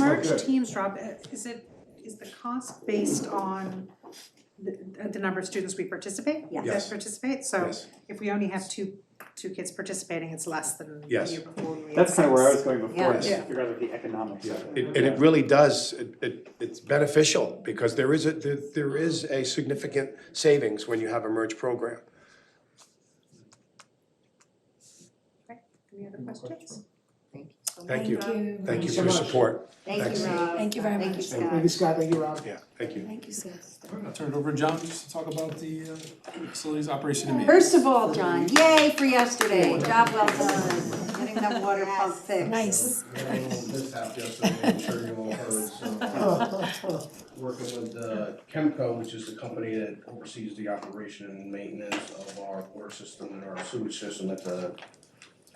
average Good. teams drop, uh, is it, is the cost based on the, uh, the number of students we participate? Yeah. Yes. That participate, so Yes. if we only have two, two kids participating, it's less than the year Yes. before we That's kind of where I was going Yeah. before, is Yeah. to figure out the economics Yeah, of it. it- and it really does, it- it, it's beneficial, because there is a, there, there is a significant savings when you have a merge program. Any other questions? Thank you so much. Thank you, you. thank you so for your much. support, Thank you, Thanks. Rob. Thank you very much. Thank you, Thank Scott. you, Scott, thank you, Rob. yeah, thank you. Thank you, Scott. Thank All right, I'll turn it over to John just to talk about the uh, facilities operation and maintenance. First of all, John, yay for yesterday, job well done, getting that water pump fixed. Nice. Had a little mishap yesterday, I'm sure you all heard, so. Working with uh, Chemco, which is the company that oversees the operation and maintenance of our water system and our sewage system at the,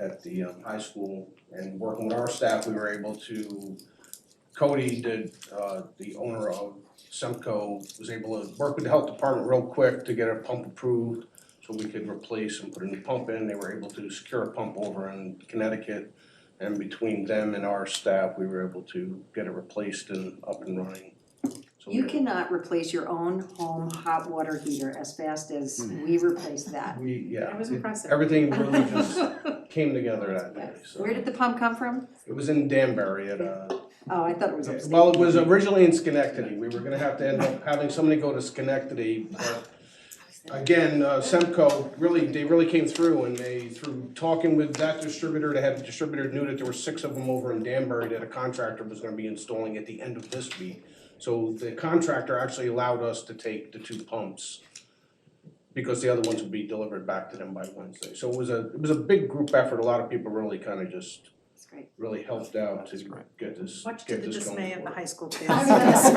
at the um, high school. And working with our staff, we were able to, Cody, the, uh, the owner of Semco, was able to work with the health department real quick to get a pump approved so we could replace and put a new pump in. They were able to secure a pump over in Connecticut. And between them and our staff, we were able to get it replaced and up and running. So You we- cannot replace your own home hot water heater as fast as we Hmm. replaced that. We, That yeah, was impressive. everything really just came together that day, so. Where did the pump come from? It was in Danbury at uh Oh, I thought it was upstairs. well, it was originally in Schenectady. We were gonna have to end up having somebody go to Schenectady, but again, uh, Semco really, they really came through and they, through talking with that distributor, they had the distributor knew that there were six of them over in Danbury that a contractor was gonna be installing at the end of this week. So the contractor actually allowed us to take the two pumps because the other ones would be delivered back to them by Wednesday. So it was a, it was a big group effort. A lot of people really kind of just That's great. really helped out to get this, Much to get the this going dismay of the forward. high school kids. That's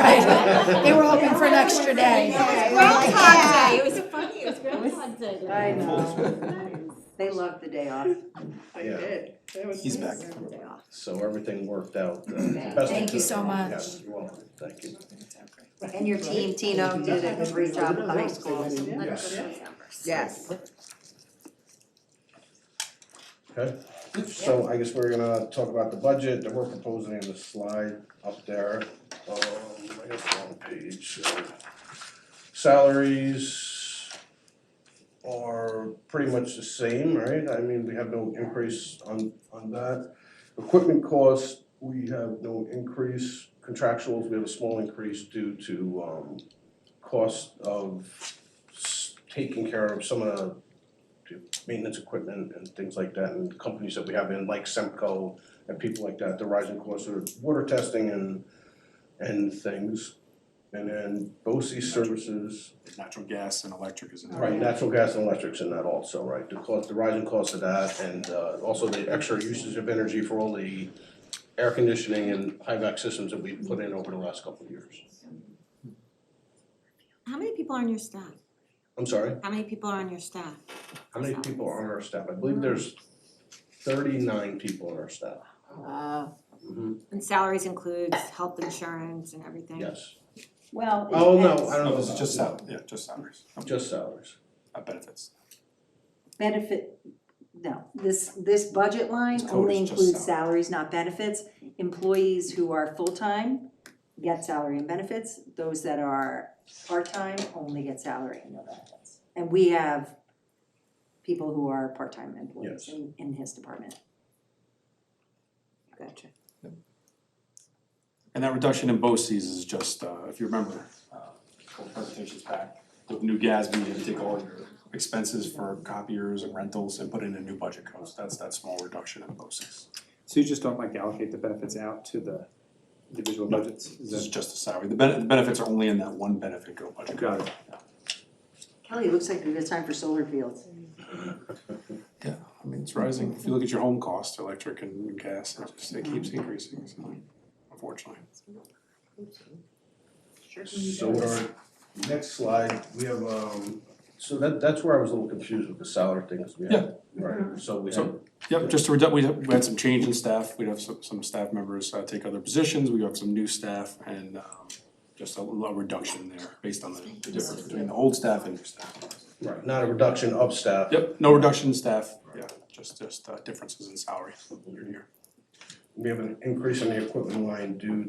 right. They were hoping for an extra day. Yeah. Groundhog Day, it was funny, it was Groundhog Day. I know. They loved the day off. I Yeah. did. That was He's back. amazing. The day off. So everything worked out. uh, Okay. best Thank you of- so much. Yes, you're welcome, thank you. And your team, Tino, did a great job at the high school. Yes. Yes. Okay, so I guess we're gonna talk about the budget that we're proposing in the slide up there, um, I guess wrong page. so. Salaries are pretty much the same, right? I mean, we have no increase on, on that. Equipment costs, we have no increase, contractuals, we have a small increase due to, um, cost of s- taking care of some of the maintenance equipment and things like that, and companies that we have in, like Semco and people like that, the rising costs of water testing and, and things. And then BOSI services, Natural gas and electric is in there. right, natural gas and electrics and that also, right, the cost, the rising cost of that, and, uh, also the extra usage of energy for all the air conditioning and HVAC systems that we've put in over the last couple of years. How many people are on your staff? I'm sorry? How many people are on your staff? How many people are on our staff? I believe there's thirty-nine people on our staff. Uh, and salaries includes health insurance and everything? Yes. Well, it Oh, no, depends. I don't No, know. this is just about- sal, yeah, just salaries, Just salaries. not benefits. benefit, no, this, this budget line This code only is just includes salaries, not benefits. Employees who are full-time get salary and benefits, those that are part-time only get salary and no benefits. And we have people who are part-time employees Yes. in, in his department. Gotcha. And that reduction in BOCES is just, uh, if you remember, uh, old presentations back, with new GASB, you had to take all your expenses for copiers and rentals and put in a new budget code, so that's that small reduction in BOCES. So you just don't like to allocate the benefits out to the individual budgets? Is This is that- just a salary, the ben- the benefits are only in that one benefit code budget code. Got it. Kelly, it looks like we have time for solar fields. Yeah, I mean, it's rising. If you look at your home cost, electric and gas, it just, it keeps increasing, so unfortunately. So our next slide, we have, um, so that, that's where I was a little confused with the salary things we had. Right, so we had, So- Yep, just to reduce, we had, we had some change in staff. We'd have some, some staff members uh, take other positions. We have some new staff and um, just a little reduction there based on the the difference between the old staff and new staff. right, not a reduction of staff. Yep, no reduction in staff, yeah, just, just uh, differences in salary year to year. We have an increase in the equipment line due